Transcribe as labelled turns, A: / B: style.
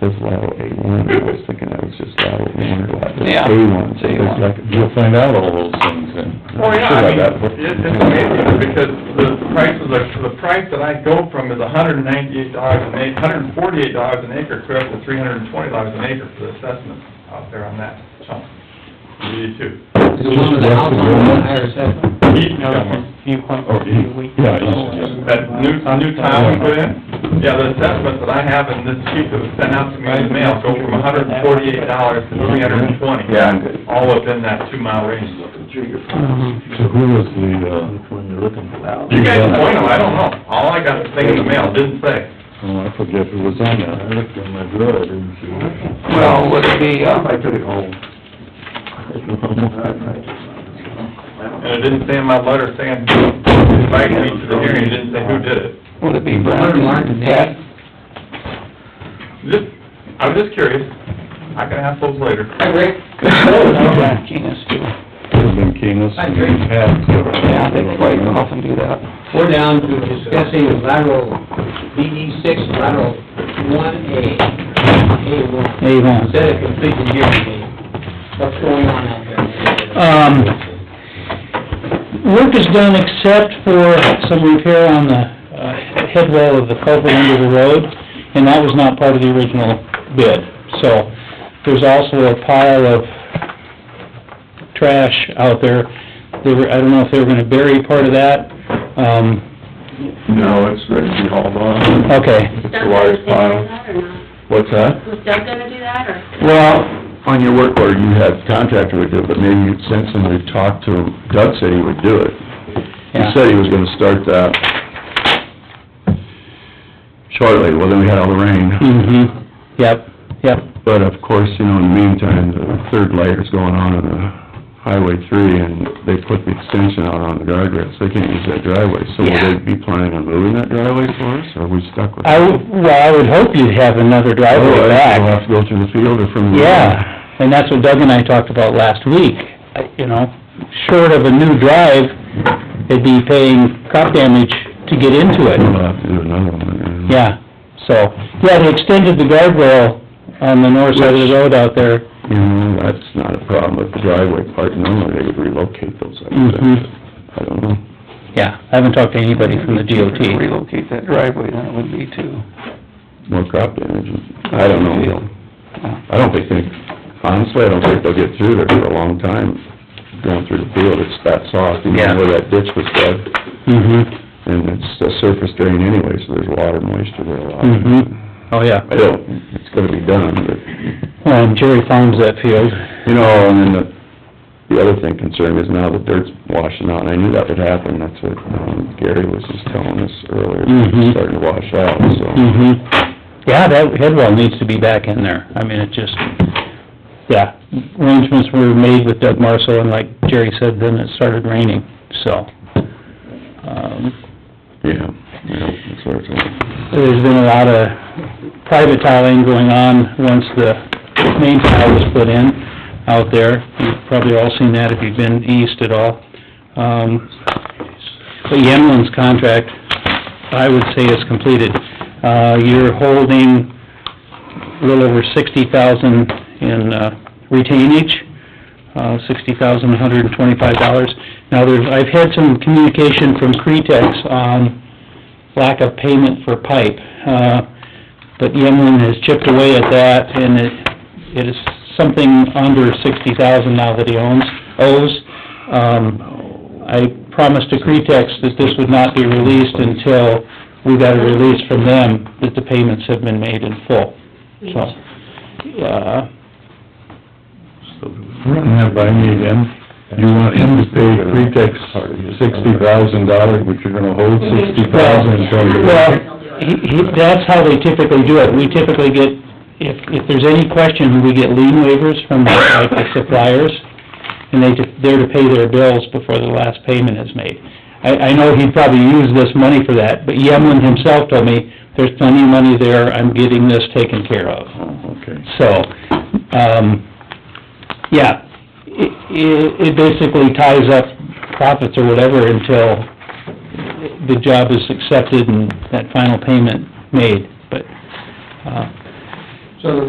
A: Says lateral A one, I was thinking that was just lateral one or lateral
B: Yeah.
A: A one, so
B: A
A: it's
B: one.
A: like,
C: You'll find out all those things then.
D: Oh, yeah,
C: Sure,
D: I mean,
C: that-
D: it- it's amazing, because the price of the, the price that I go from is hundred and ninety-eight dollars an acre, hundred and forty-eight dollars an acre, clear up to three hundred and twenty dollars an acre for the assessment out there on that chunk. Me too.
B: Is it one of the house on the higher assessment? Viewpoint,
C: Oh, yeah.
B: viewpoint.
C: Yeah, yeah.
D: That new, new town we put in, yeah, the assessment that I have in this sheet that was sent out to me in the mail, go from hundred and forty-eight dollars to three hundred and twenty.
C: Yeah, I'm good.
D: All within that two-mile range.
C: So who was the, uh? Mm-hmm. Which one you're looking for?
D: You guys point them, I don't know, all I got is thing in the mail, didn't say.
C: Oh, I forget who was on that. I looked in my drawer, I didn't see.
B: Well, would it be, uh,
E: I took it home.
D: And it didn't say in my letter saying, invite me to the hearing, it didn't say who did it.
B: would it be Brown and Ted?
D: Just, I was just curious. I can ask those later.
B: I agree. Brown Genus too.
C: Could've been Keenest.
B: I agree. Yeah, they quite often do that.
E: We're down to discussing lateral BD six, lateral one A, A one.
F: Hey, Vaughn.
E: Instead of completing hearing, what's going on out there?
F: Um, work is done except for some repair on the uh, head wall of the culvert under the road, and that was not part of the original bid. So, there's also a pile of trash out there. They were, I don't know if they were gonna bury part of that. Um,
C: No, it's ready to be hauled on.
F: okay.
C: It's a
G: Doug
C: large
G: gonna do
C: pile.
G: that or not?
C: What's that?
G: Was Doug gonna do that, or?
C: Well, on your work order, you had contractor would do it, but maybe you'd send somebody to talk to him. Doug said he would do it. He
F: Yeah.
C: said he was gonna start that shortly, well, then we had all the rain.
F: Mm-hmm. Yep, yep.
C: But of course, you know, in the meantime, the third layer's going on on the Highway three, and they put the extension out on the guardrail, so they can't use that driveway. So will they be planning on moving that driveway for us, or are we stuck with it?
F: I, would- well, I would hope you'd have another driveway
C: Otherwise,
F: back.
C: We'll have to go through the field or from the...
F: Yeah, and that's what Doug and I talked about last week, I- you know, short of a new drive, they'd be paying crop damage to get
C: We'll
F: into it,
C: have to do another one, yeah.
F: yeah, so, yeah, they extended the guardrail on the north side of the road out there,
C: You know, that's not a problem with the driveway part, normally they would relocate those, I
F: Mhm.
C: think. I don't know.
F: yeah, I haven't talked to anybody from the DOT.
B: Relocate that driveway, then it would be too.
C: More crop damage, I don't know. I don't think, they- honestly, I don't think they'll get through there for a long time, going through the field, it's that soft, even
F: Yeah.
C: where that ditch was dug,
F: Mm-hmm,
C: and it's a surface drain anyway, so there's water moisture there a lot.
F: Mhm. oh, yeah,
C: I don't, it's gonna be done, but
F: well, and Jerry farms that field,
C: You know, and then the, the other thing concerned is now the dirt's washing out, and I knew that would happen, that's what um, Gary was just telling us earlier,
F: Mhm.
C: it's starting to wash out, so.
F: mm-hmm, yeah, that head wall needs to be back in there, I mean, it just, yeah, arrangements were made with Doug Marshall, and like Jerry said, then it started raining, so. um,
C: Yeah, yeah, that's what it's like.
F: There's been a lot of private tiling going on once the main tile was put in out there. You've probably all seen that if you've been east at all. Um, But Yemlin's contract, I would say is completed. Uh, you're holding a little over sixty thousand in uh, retainage, uh, sixty thousand, one hundred and twenty-five dollars. Now, there's, I've had some communication from Cretex on lack of payment for pipe, uh, but Yemlin has chipped away at that, and it, it is something under sixty thousand now that he owns, owes. Um, I promised to Cretex that this would not be released until we got a release from them that the payments have been made in full. So, uh,
C: Run that by me again, you want him to pay pretext sixty thousand dollars, but you're gonna hold sixty
F: well, he- he- that's how they typically do it. We typically get, if, if there's any question, we get lien waivers from like the suppliers, and they, ju- they're to pay their bills before the last payment is made. I, I know he'd probably use this money for that, but Yemlin himself told me, there's plenty of money there, I'm getting this taken care of.
C: Okay.
F: So, um, yeah, it, it it basically ties up profits or whatever until the job is accepted and that final payment made, but, uh,